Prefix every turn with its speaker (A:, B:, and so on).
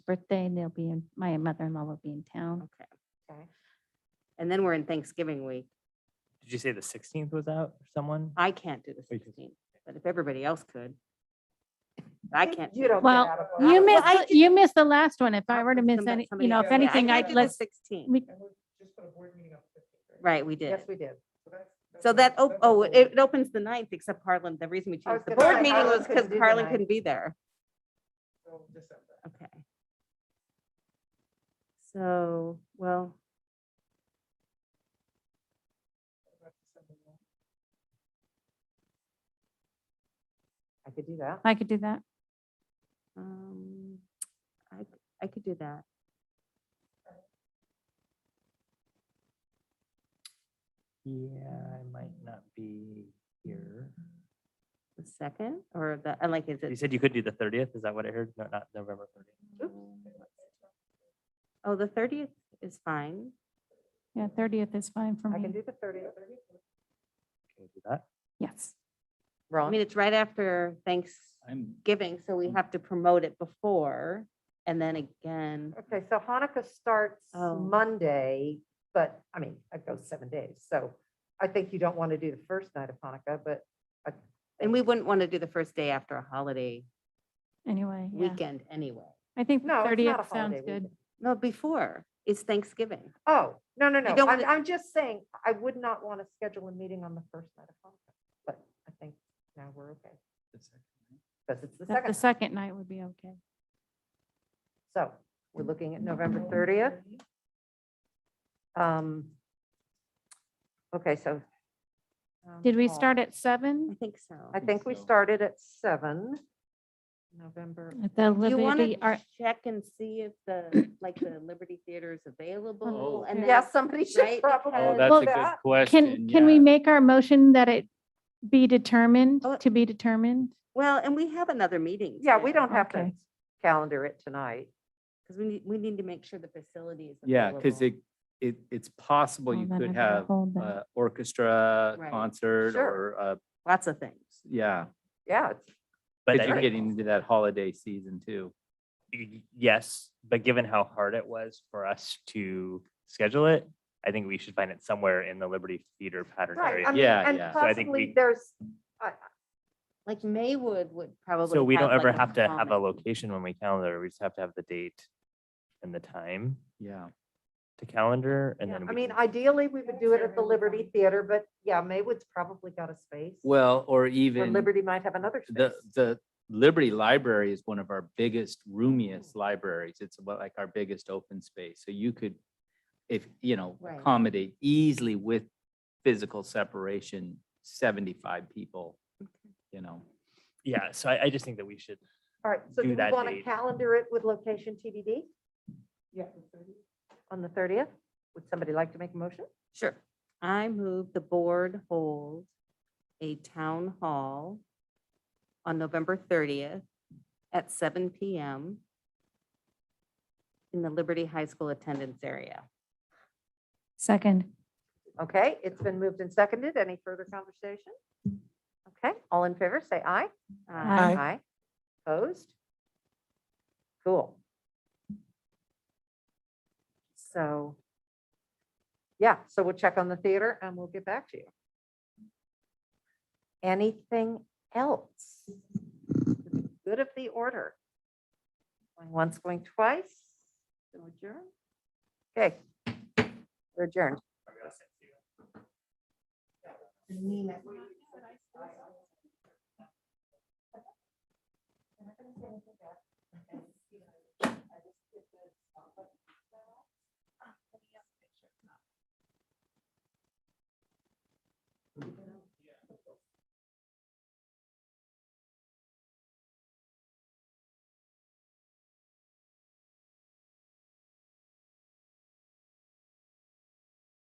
A: birthday, they'll be in, my mother-in-law will be in town.
B: Okay. Okay. And then we're in Thanksgiving week.
C: Did you say the sixteenth was out or someone?
B: I can't do the
C: Wait, you-
B: sixteenth, but if everybody else could. I can't.
D: You don't. get
A: Well,
D: out of work.
A: You
B: Well,
A: missed,
B: I
A: the- you missed the last one. If I were to miss any, you know, if
D: else. Yeah, I
A: anything, I'd let's,
B: Sixteen,
A: we,
B: right, we did.
D: Yes, we did.
B: So that, oh, oh, it it opens the ninth, except Harlan, the reason we
D: I
B: chose
D: was
B: the
D: gonna
B: board
D: say,
B: meeting
D: Harlan
B: was because
D: couldn't do the
B: Harlan
D: 9th.
B: couldn't be there. Okay. So, well,
D: I could do that.
A: I could do that.
B: um, I, I could do that.
C: Yeah, I might not be here.
B: The second or the, and like, is
C: You
B: it,
C: said you could do the thirtieth. Is that what I heard? No, not November thirtieth.
B: oh, the thirtieth is fine.
A: Yeah, thirtieth is fine for
D: I can
A: me.
D: do the thirtieth.
C: Can we do that?
A: Yes.
B: I mean, it's right after
C: I'm.
B: Thanksgiving, so we have to promote it before and then again.
D: Okay, so Hanukkah starts
B: Oh.
D: Monday, but I mean, it goes seven days. So I think you don't want to do the first night of Hanukkah, but
B: And we wouldn't want to do the first day after a holiday
A: Anyway, yeah.
B: weekend anyway.
A: I think
D: no, it's not a
A: thirtieth sounds
D: holiday
A: good.
D: weekend.
B: No, before, it's Thanksgiving.
D: Oh, no, no, no.
B: don't
D: I'm,
B: wanna-
D: I'm just saying, I would not want to schedule a meeting on the first night of Hanukkah, but I think now we're okay. Because it's the
A: That The second
D: second.
A: night would be okay.
D: So we're looking at November thirtieth. Um. Okay, so. town
A: Did we
D: hall.
A: start at
B: I
A: seven?
B: think so.
D: I think we started at seven. November,
A: At the
B: Do you want
A: Liberty
B: to
A: Art,
B: check and see if the, like, the Liberty Theater is available? and then-
D: yeah, somebody should
B: right,
D: probably.
B: because-
E: Oh,
B: Uh,
E: that's
A: well,
E: a
D: that-
E: good question.
A: can, can we
E: yeah.
A: make our motion that it be determined,
B: Oh.
A: to be determined?
B: Well, and we have another meeting.
D: Yeah, we don't have to
A: Okay.
D: calendar it tonight.
B: Because we need, we need to make sure the facility is
E: Yeah, because
B: available.
E: it, it, it's possible
A: Oh,
E: you
A: then I
E: could
A: gotta
E: have
A: hold that.
E: a orchestra,
B: Right.
E: concert,
D: Sure.
E: or, uh,
B: Lots of things.
E: yeah.
D: Yeah, it's-
C: But
E: But
C: I
E: you're
C: think-
E: getting into that holiday season too.
C: y- yes, but given how hard it was for us to schedule it, I think we should find it somewhere in the Liberty Theater pattern
D: right. I
C: area.
D: mean,
E: Yeah,
D: And
E: yeah.
C: So I think
D: possibly
C: we-
D: there's, I-
B: Like Maywood would probably.
C: So we don't ever
B: like, a
C: have to have a
B: common-
C: location when we calendar. We just have to have the date and the time
E: Yeah.
C: to calendar and
D: yeah,
C: then.
D: I
C: we
D: mean,
C: can-
D: ideally, we would do it at the Liberty Theater, but yeah, Maywood's probably got a space.
E: Well, or
D: Or
E: even
D: Liberty might have another space.
E: the, the Liberty Library is one of our biggest, roomiest libraries. It's about like our biggest open space. So you could, if, you know,
B: Right.
E: accommodate easily with physical separation, seventy-five people, you know.
C: Yeah, so I, I just think that we should,
D: All right, so
C: do
D: do we
C: that
D: want to
C: date.
D: calendar it with location TBD? Yeah. On the thirtieth? Would somebody like to make a motion?
B: Sure. I move the board hold a town hall on November thirtieth at seven PM in the Liberty High School attendance area.
A: Second.
D: Okay, it's been moved and seconded. Any further conversation? Okay, all in favor, say aye.
B: Uh,
A: Aye.
D: Aye. Opposed? Cool. So, yeah, so we'll check on the theater and we'll get back to you. Anything else? Good of the order. Going once, going twice. Then Adjourn. Okay. We're adjourned.